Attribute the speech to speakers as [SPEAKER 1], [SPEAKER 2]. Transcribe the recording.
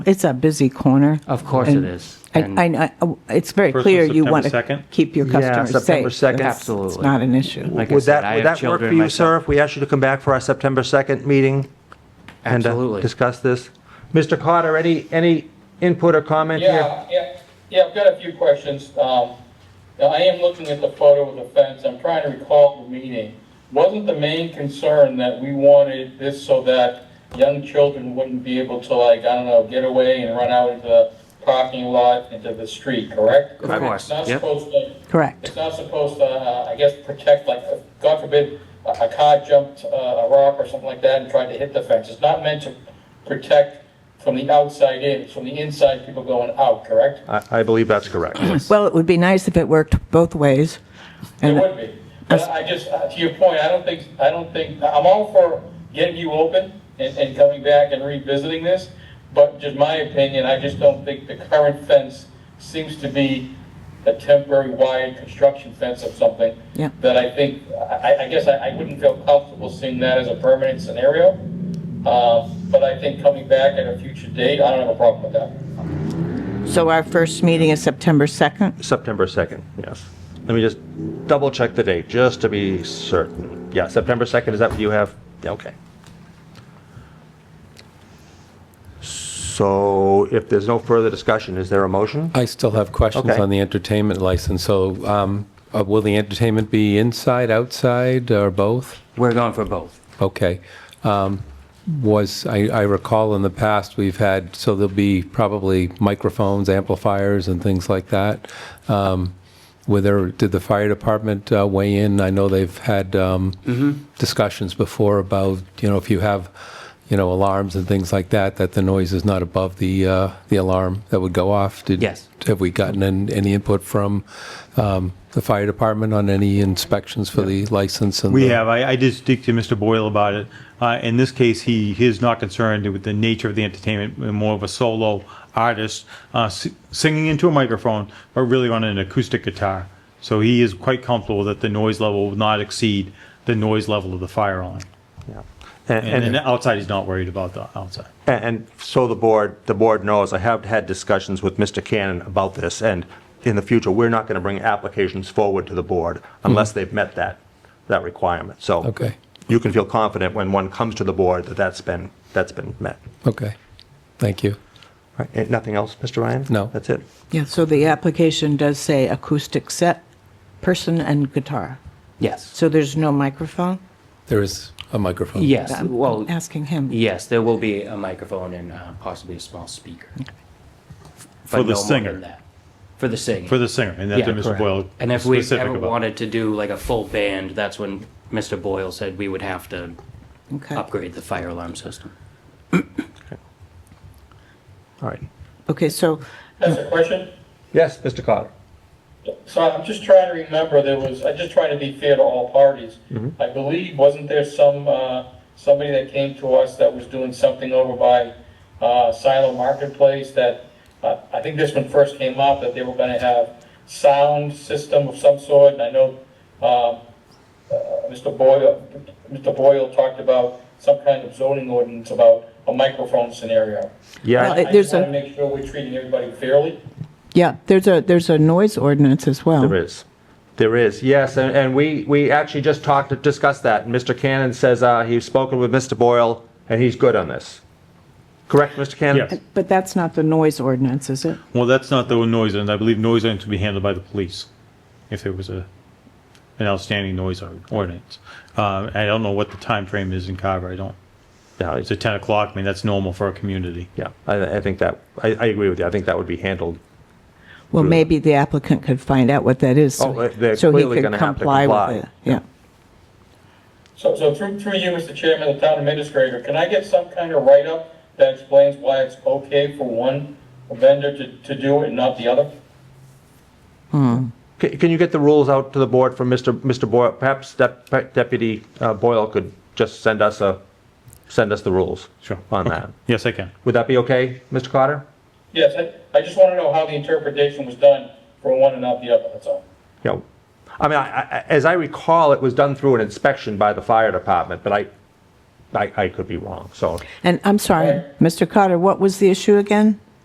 [SPEAKER 1] It's a busy corner.
[SPEAKER 2] Of course it
[SPEAKER 1] And
[SPEAKER 2] is.
[SPEAKER 1] I,
[SPEAKER 2] And-
[SPEAKER 1] I- I- it's very
[SPEAKER 3] First of
[SPEAKER 1] clear you want
[SPEAKER 3] September 2nd?
[SPEAKER 1] to keep your
[SPEAKER 4] Yeah,
[SPEAKER 1] customers safe.
[SPEAKER 4] September 2nd.
[SPEAKER 1] That's- It's
[SPEAKER 2] Absolutely.
[SPEAKER 1] not an issue.
[SPEAKER 2] Like I
[SPEAKER 4] Would
[SPEAKER 2] said,
[SPEAKER 4] that,
[SPEAKER 2] I
[SPEAKER 4] would
[SPEAKER 2] have
[SPEAKER 4] that work for
[SPEAKER 2] children
[SPEAKER 4] you, sir,
[SPEAKER 2] myself.
[SPEAKER 4] if we asked you to come back for our September 2nd meeting? and, uh,
[SPEAKER 2] Absolutely.
[SPEAKER 4] Discuss this? Mr. Carter, any, any input or comment here?
[SPEAKER 5] Yeah, yeah, yeah, I've got a few questions. Um, now, I am looking at the photo of the fence, I'm trying to recall the meeting. Wasn't the main concern that we wanted this so that young children wouldn't be able to like, I don't know, get away and run out into the parking lot, into the street, correct?
[SPEAKER 2] Of course,
[SPEAKER 5] It's not
[SPEAKER 2] yep.
[SPEAKER 5] supposed to,
[SPEAKER 1] Correct.
[SPEAKER 5] it's not supposed to, uh, I guess, protect, like, uh, God forbid, a a car jumped uh, a rock or something like that and tried to hit the fence. It's not meant to protect from the outside in, it's from the inside people going out, correct?
[SPEAKER 3] I, I believe that's correct.
[SPEAKER 1] Well, it would be nice if it worked both ways.
[SPEAKER 5] It
[SPEAKER 1] And-
[SPEAKER 5] would be. But I just, uh, to your point, I don't think, I don't think, I'm all for getting you open and, and coming back and revisiting this, but just my opinion, I just don't think the current fence seems to be a temporary wired construction fence of something.
[SPEAKER 1] Yeah.
[SPEAKER 5] That I think, I, I- I guess I, I wouldn't feel comfortable seeing that as a permanent scenario. Uh, but I think coming back at a future date, I don't have a problem with that.
[SPEAKER 1] So our first meeting is September 2nd?
[SPEAKER 3] September 2nd, yes. Let me just double check the date, just to be certain. Yeah, September 2nd, is that what you have? Yeah, Okay.
[SPEAKER 4] So if there's no further discussion, is there a motion?
[SPEAKER 6] I still have questions
[SPEAKER 4] Okay.
[SPEAKER 6] on the entertainment license. So um, uh, will the entertainment be inside, outside, or both?
[SPEAKER 2] We're going for both.
[SPEAKER 6] Okay. Um, Was, I I recall in the past, we've had, so there'll be probably microphones, amplifiers, and things like that. Um, Were there, did the fire department uh, weigh in? I know they've had um, discussions before about, you know, if you have, you know, alarms and things like that, that the noise is not above the, uh, the alarm that would go off. Did-
[SPEAKER 2] Yes.
[SPEAKER 6] Have we gotten an- any input from um, the fire department on any inspections for the license? and
[SPEAKER 7] We
[SPEAKER 6] the-
[SPEAKER 7] have. I, I did speak to Mr. Boyle about it. Uh, in this case, he, he is not concerned with the nature of the entertainment, uh, more of a solo artist uh, s- singing into a microphone, but really on an acoustic guitar. So he is quite comfortable that the noise level will not exceed the noise level of the fire alarm.
[SPEAKER 4] Yeah.
[SPEAKER 7] And, and
[SPEAKER 4] And, and,
[SPEAKER 7] outside, he's not worried about the outside.
[SPEAKER 4] and so the board, the board knows, I have had discussions with Mr. Cannon about this, and in the future, we're not going to bring applications forward to the board unless they've met that, that requirement. So
[SPEAKER 6] Okay.
[SPEAKER 4] you can feel confident when one comes to the board that that's been, that's been met.
[SPEAKER 6] Okay, thank you.
[SPEAKER 4] Right, eh, Nothing else, Mr. Ryan?
[SPEAKER 6] No.
[SPEAKER 4] That's it?
[SPEAKER 1] Yeah, so the application does say acoustic set, person and guitar.
[SPEAKER 2] Yes.
[SPEAKER 1] So there's no microphone?
[SPEAKER 6] There is a microphone.
[SPEAKER 2] Yes,
[SPEAKER 1] I'm
[SPEAKER 2] well,
[SPEAKER 1] Asking him.
[SPEAKER 2] yes, there will be a microphone and uh, possibly a small speaker.
[SPEAKER 7] For the singer.
[SPEAKER 2] For the singer.
[SPEAKER 7] For the singer, and that's
[SPEAKER 2] Yeah,
[SPEAKER 7] what Mr.
[SPEAKER 2] correct.
[SPEAKER 7] Boyle
[SPEAKER 2] And if we
[SPEAKER 7] specific
[SPEAKER 2] ever
[SPEAKER 7] about.
[SPEAKER 2] wanted to do like a full band, that's when Mr. Boyle said we would have to
[SPEAKER 1] Okay.
[SPEAKER 2] upgrade the fire alarm system.
[SPEAKER 4] All right.
[SPEAKER 1] Okay, so,
[SPEAKER 5] That's a question?
[SPEAKER 4] Yes, Mr. Carter?
[SPEAKER 5] So I'm just trying to remember, there was, I'm just trying to be fair to all parties. I believe, wasn't there some, uh, somebody that came to us that was doing something over by, uh, Silo Marketplace that, uh, I think this one first came up, that they were gonna have sound system of some sort, and I know, um, uh, Mr. Boyle, Mr. Boyle talked about some kind of zoning ordinance about a microphone scenario.
[SPEAKER 1] well,
[SPEAKER 4] Yeah,
[SPEAKER 1] it-
[SPEAKER 5] I
[SPEAKER 1] there's
[SPEAKER 5] just wanna
[SPEAKER 1] a,
[SPEAKER 5] make sure we're treating everybody fairly.
[SPEAKER 1] yeah, there's a, there's a noise ordinance as well.
[SPEAKER 4] there is. There is, yes, and, and we, we actually just talked, discussed that, and Mr. Cannon says, uh, he's spoken with Mr. Boyle, and he's good on this. Correct, Mr. Cannon?
[SPEAKER 7] Yes.
[SPEAKER 1] But that's not the noise ordinance, is it?
[SPEAKER 7] Well, that's not the noise, and I believe noise ordinance would be handled by the police if there was a, an outstanding noise or- ordinance. Uh, I don't know what the time frame is in Carver, I don't,
[SPEAKER 4] No,
[SPEAKER 7] it's at ten o'clock, I mean, that's normal for a community.
[SPEAKER 4] Yeah, I, I think that, I, I agree with you, I think that would be handled.
[SPEAKER 1] Well,
[SPEAKER 4] Really?
[SPEAKER 1] maybe the applicant could find out what that is. so
[SPEAKER 4] Oh,
[SPEAKER 1] he-
[SPEAKER 4] they're
[SPEAKER 1] so he
[SPEAKER 4] clearly
[SPEAKER 1] could
[SPEAKER 4] gonna have to
[SPEAKER 1] with
[SPEAKER 4] comply.
[SPEAKER 1] it. Yeah.
[SPEAKER 5] So, so through, through you, Mr. Chairman, the town administrator, can I get some kind of write-up that explains why it's okay for one vendor to, to do it and not the other?
[SPEAKER 4] Can, can you get the rules out to the board from Mr. Mr. Boyle? Perhaps Dep- Deputy uh, Boyle could just send us a, send us the rules.
[SPEAKER 7] Sure.
[SPEAKER 4] On
[SPEAKER 7] Okay.
[SPEAKER 4] that.
[SPEAKER 7] Yes, I can.
[SPEAKER 4] Would that be okay, Mr. Carter?
[SPEAKER 5] Yes, I, I just want to know how the interpretation was done for one and not the other, that's all.
[SPEAKER 4] you know, I mean, I, I, as I recall, it was done through an inspection by the fire department, but I,
[SPEAKER 3] I, I could be wrong, so.
[SPEAKER 1] And I'm sorry, Mr. Carter, what was the issue again?